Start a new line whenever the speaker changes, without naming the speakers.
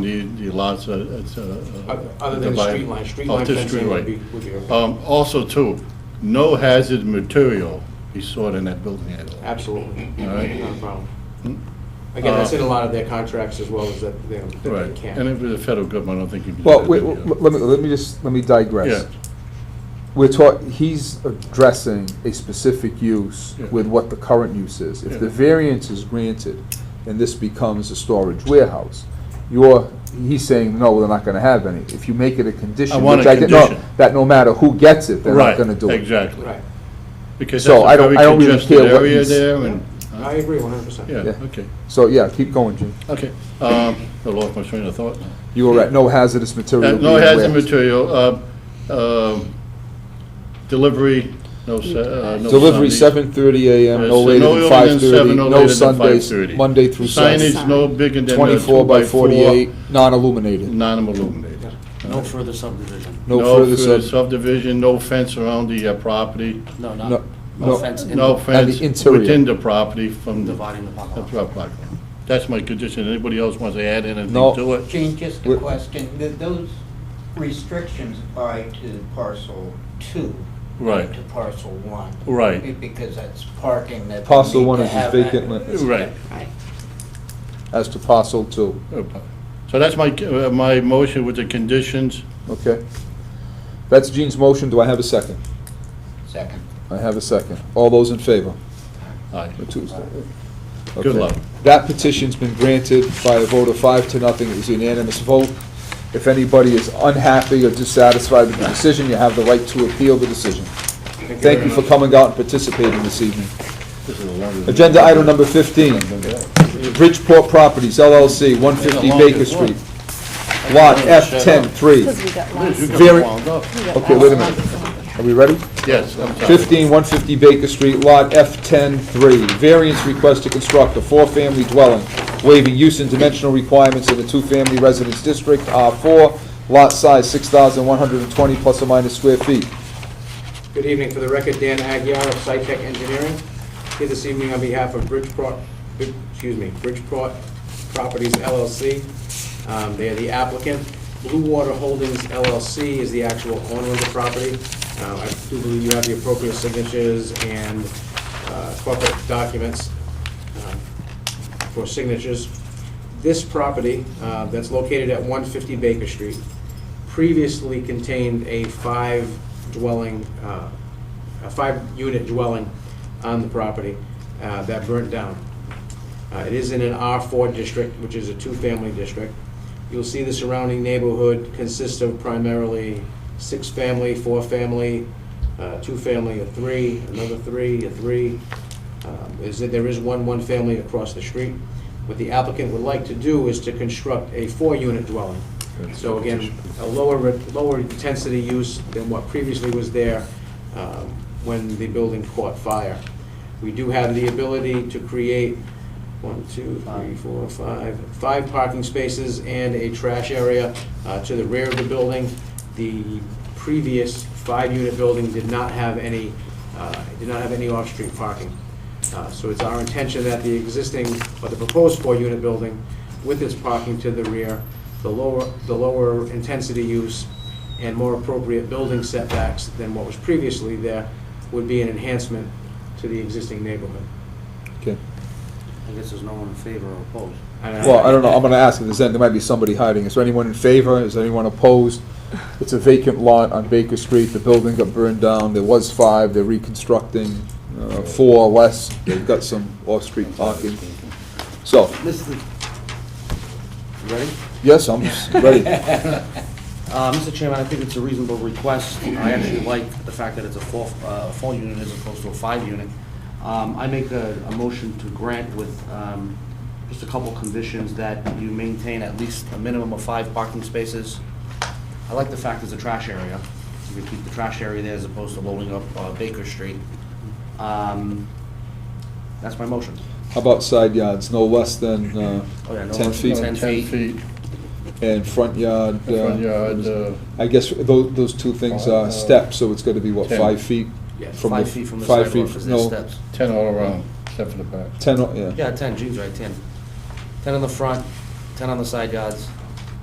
Need the lots, uh, it's a. a-
Other other than the
divide-
street line, street
Oh,
line
just
fencing
streetlight.
would be, would be okay.
Um, also too, no hazard material be stored in that building at all.
Absolutely,
Oh. All
not
right. Hmm. Uh,
a problem. Again, that's in a lot of their contracts as well as that, you know, that they
Right, and
can.
if it's a federal government, I don't think you can do
Well,
that.
wait,
yeah.
w- w- let me, let me just, let me
Yeah,
digress. We're taught, he's addressing a specific use
Yeah.
with what the current use is. If the
Yeah.
variance is granted and this becomes a storage warehouse, you're, he's saying, no, they're not gonna have any. If you make it a condition,
want
which
a
I didn't know,
condition.
that no matter who gets it, they're not
right,
gonna do it.
exactly.
Right,
Because
So
that's
I
a
don't-
very
I don't really
congested
care what
area
he's-
there and, uh,
I agree one hundred percent.
yeah,
Yeah.
okay,
So, yeah, keep going, Jim.
okay. Um, I lost my train of thought now.
You were right, no hazardous material.
Uh, No
being
hazard
warehoused.
material, uh, um, delivery, no, se- uh, no.
Delivery
Sundays.
seven thirty AM,
Uh,
no
so
later
no
than
earlier
five
than
thirty,
7, no
no
later than
Sundays,
5:30.
Monday through Sunday.
Signage no bigger than a
24
uh, two
by
by four,
48, non-illuminated.
non-illuminated.
No further subdivision.
No further
further
sub,
subdivision, no fence around the uh, property,
No,
No,
not,
no.
no fence in
no fence
interior.
within the property from the.
dividing the
the
parking lot.
prop- block. That's my condition, anybody else wants to add anything
No.
to it?
Gene, just a
Wh-
question, Th- those restrictions apply to parcel two,
Right,
to parcel one?
Right.
Be- Because that's parking that. we
parcel
need
one
to
is
have
vacant
at-
land
right.
as to parcel two,
So that's my, uh, my motion with the conditions.
okay? That's Gene's motion, do I have a second?
Second.
I have a second. All those in favor?
Aye.
The two's-
Good
Okay.
luck.
That petition's been granted by a vote of five to nothing, it was a unanimous vote. If anybody is unhappy or dissatisfied with the decision, you have the right to appeal the decision. Thank
very
you for
much.
coming out and participating this evening.
This is a longer-
Agenda item number 15, Bridgeport Properties LLC, 150
Yeah, the
Baker
longest one.
Street, Lot
Because
F103.
we got
Liz, you
lost.
got
Very-
wound up.
Okay, wait a minute, are we ready?
Yes, I'm sorry.
15, 150 Baker Street, Lot F103, variance request to construct a four-family dwelling, waiving use and dimensional requirements of the two-family residence district, R4, lot size 6,120 plus or minus square feet.
Good evening, for the record, Dan Aguirre of SciTech Engineering, here this evening on behalf of Bridgeport, Brid- excuse me, Bridgeport Properties LLC. Um, They are the applicant. Blue Water Holdings LLC is the actual owner of the property. Uh, I do believe you have the appropriate signatures and uh, corporate documents um, for signatures. This property uh, that's located at 150 Baker Street previously contained a five dwelling, uh, a five-unit dwelling on the property uh, that burnt down. Uh, It is in an R4 district, which is a two-family district. You'll see the surrounding neighborhood consists of primarily six-family, four-family, uh, two-family, a three, another three, a three. Um, Is that there is one one-family across the street. What the applicant would like to do is to construct a four-unit dwelling. So again, a lower, lower intensity use than what previously was there um, when the building caught fire. We do have the ability to create one, two, three, four, five, five parking spaces and a trash area uh, to the rear of the building. The previous five-unit building did not have any, uh, did not have any off-street parking. Uh, So it's our intention that the existing, or the proposed four-unit building with its parking to the rear, the lower, the lower intensity use and more appropriate building setbacks than what was previously there would be an enhancement to the existing neighborhood.
Okay.
I guess there's no one in favor or opposed.
And
Well, I don't know, I'm gonna ask if there's, any- there might be somebody hiding. Is there anyone in favor? Is there anyone opposed? It's a vacant lot on Baker Street, the building got burned down, there was five, they're reconstructing, uh, four or less, they've got some off-street parking. So,
Mr. You Ready?
yes, I'm ready.
Uh, Mr. Chairman, I think it's a reasonable request. I actually like the fact that it's a four, uh, four unit as opposed to a five unit. Um, I make a, a motion to grant with, um, just a couple conditions that you maintain at least a minimum of five parking spaces. I like the fact there's a trash area. You can keep the trash area there as opposed to loading up uh, Baker Street. Um, that's my motion.
How about side yards, no less than uh,
Oh, yeah,
10
no less than
feet?
10.
Ten
feet.
feet,
And front yard? uh,
front yard, uh,
I guess tho- those two things
Uh,
are steps, so it's going to be, what,
10.
five feet?
Yes.
from
Five
the-
feet from the
five feet
sidewalk,
from-
because there's
no,
steps.
ten all around, except for the back.
10, o- yeah.
Yeah, ten, Gene's right, ten. Ten on the front, ten on the side yards,